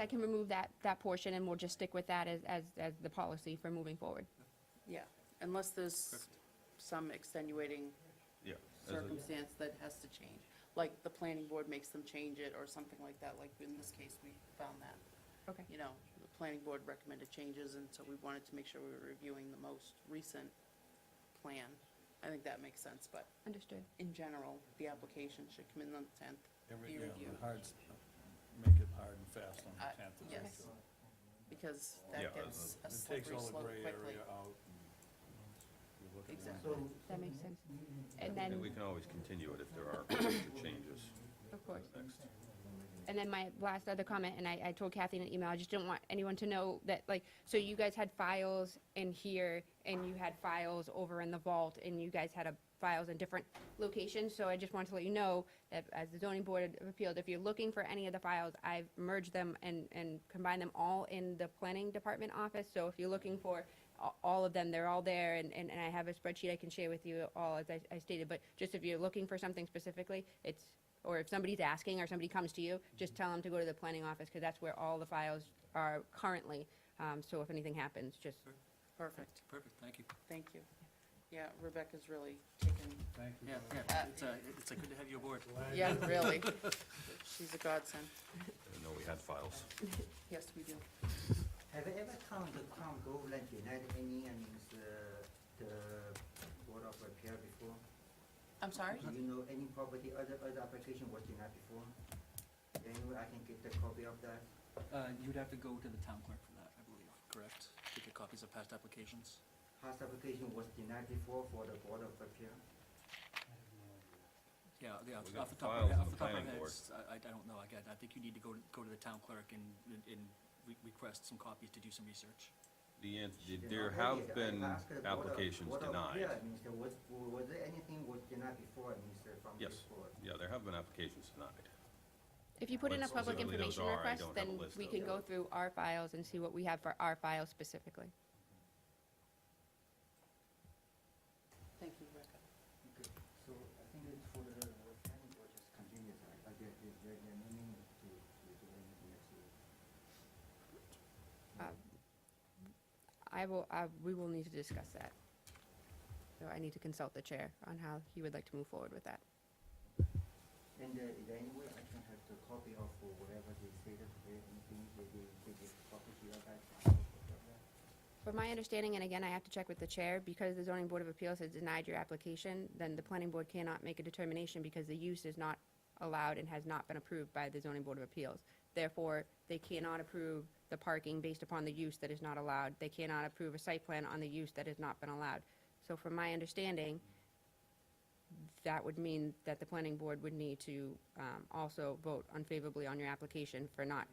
I can remove that, that portion and we'll just stick with that as, as, as the policy for moving forward. Yeah, unless there's some extenuating Yeah. as a- circumstance that has to change, like the planning board makes them change it or something like that, like in this case, we found that. Okay. You know, the planning board recommended changes, and so we wanted to make sure we were reviewing the most recent plan. I think that makes sense, but Understood. in general, the application should come in on the tenth, Every, be yeah, reviewed. the hard, make it hard and fast on Uh, the tenth. yes. Because Yeah, that gets a It takes slippery all the slope gray quickly. area out. and you look at it. Exactly. That makes sense. Mm-hmm. And And we then, can always continue it if there are future changes of course. next. And then my last other comment, and I, I told Kathy in an email, I just didn't want anyone to know that, like, so you guys had files in here, and you had files over in the vault, and you guys had a files in different locations, so I just wanted to let you know that as the zoning board of appeals, if you're looking for any of the files, I've merged them and, and combined them all in the planning department office, so if you're looking for a- all of them, they're all there, and, and, and I have a spreadsheet I can share with you all, as I, I stated, but just if you're looking for something specifically, it's, or if somebody's asking, or somebody comes to you, just tell them to go to the planning office, because that's where all the files are currently, um, so if anything happens, just, Perfect, Perfect, thank you. thank you. Yeah, Rebecca's really taken Thank you. Yeah, yeah, it's, uh, it's uh, good to have you aboard. Yeah, really. She's a godsend. I didn't know we had files. Yes, we do. Have you ever come to Congoland United Indians, uh, the Board of Appeal before? I'm sorry? Do you know any property, other, other application was denied before? Anyway, I can get the copy of that. Uh, You'd have to go to the town clerk for that, I believe, correct? To get copies of past applications? Past application was denied before for the Board of Appeal. Yeah, yeah, We off got off the the top files of, in off the the top of my planning head, board. it's- I, I don't know, again, I think you need to go, to go to the town clerk and, and- and re- request some copies to do some research. The, an- She did there not read have it. I been asked the Board of- applications Board of denied. Appeal, means there was, was there anything was denied before, means uh, from Yes. this board? Yeah, there have been applications denied. if you put in a What public specifically those information are, I request, don't have a then list we of can them. go through our files and see what we have for our files specifically. Thank you, Rebecca. Okay, so I think it's for the, the planning board just continues, I, I get, get, get, get, to, to do anything next week. Uh, I will, I, we will need to discuss that. So I need to consult the chair on how he would like to move forward with that. And uh, is there any way I can have the copy of whatever they say that they, anything they, they, they give copy to your guys? From my understanding, and again, I have to check with the chair, because the zoning board of appeals has denied your application, then the planning board cannot make a determination because the use is not allowed and has not been approved by the zoning board of appeals. Therefore, they cannot approve the parking based upon the use that is not allowed. They cannot approve a site plan on the use that has not been allowed. So from my understanding, that would mean that the planning board would need to, um, also vote unfavorably on your application for not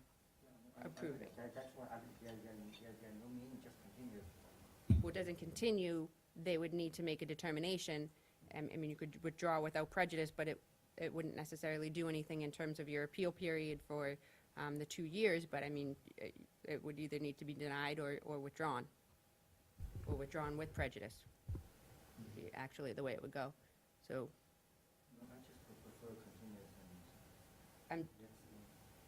Approve it. That, that's why, I, mean, there, there, there, there no meaning, just continue. what doesn't continue, they would need to make a determination. Um, I mean, you could withdraw without prejudice, but it, it wouldn't necessarily do anything in terms of your appeal period for um, the two years, but I mean, it- it would either need to be denied or, or withdrawn, or withdrawn with prejudice, be actually, the way it would go. So No, I just pre- prefer continuous and. I'm- Let's see.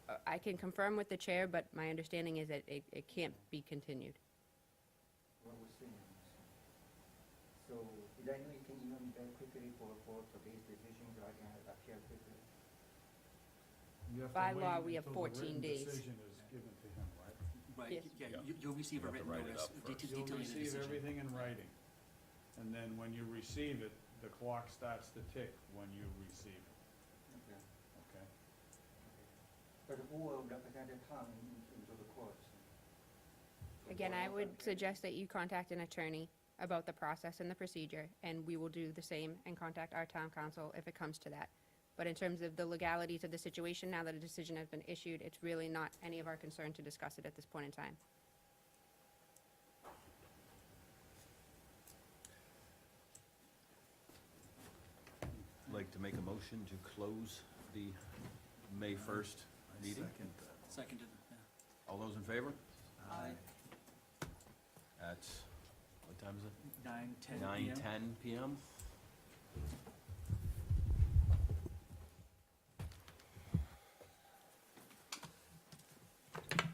uh, I can confirm with the chair, but my understanding is that it, it can't be continued. what we're seeing. So, did I know you can email me very quickly for, for today's decision, so I can appear quickly? You have to By law, wait we have until the 14 written days. Decision is given to him, right? Right, Yes. Yeah. yeah, you- you'll You receive a have to written write it notice up det- first. You'll detailing the receive decision. everything in writing. And then when you receive it, the clock starts to tick when you receive it, Okay. okay? But who will represent the town in- into the courts? Again, I would suggest that you contact an attorney about the process and the procedure, and we will do the same and contact our town council if it comes to that. But in terms of the legalities of the situation, now that a decision has been issued, it's really not any of our concern to discuss it at this point in time. Like to make a motion to close the May 1st meeting? Seconded, yeah. All those in favor? Aye. At, what time is it? Nine, ten 9:10 PM. PM?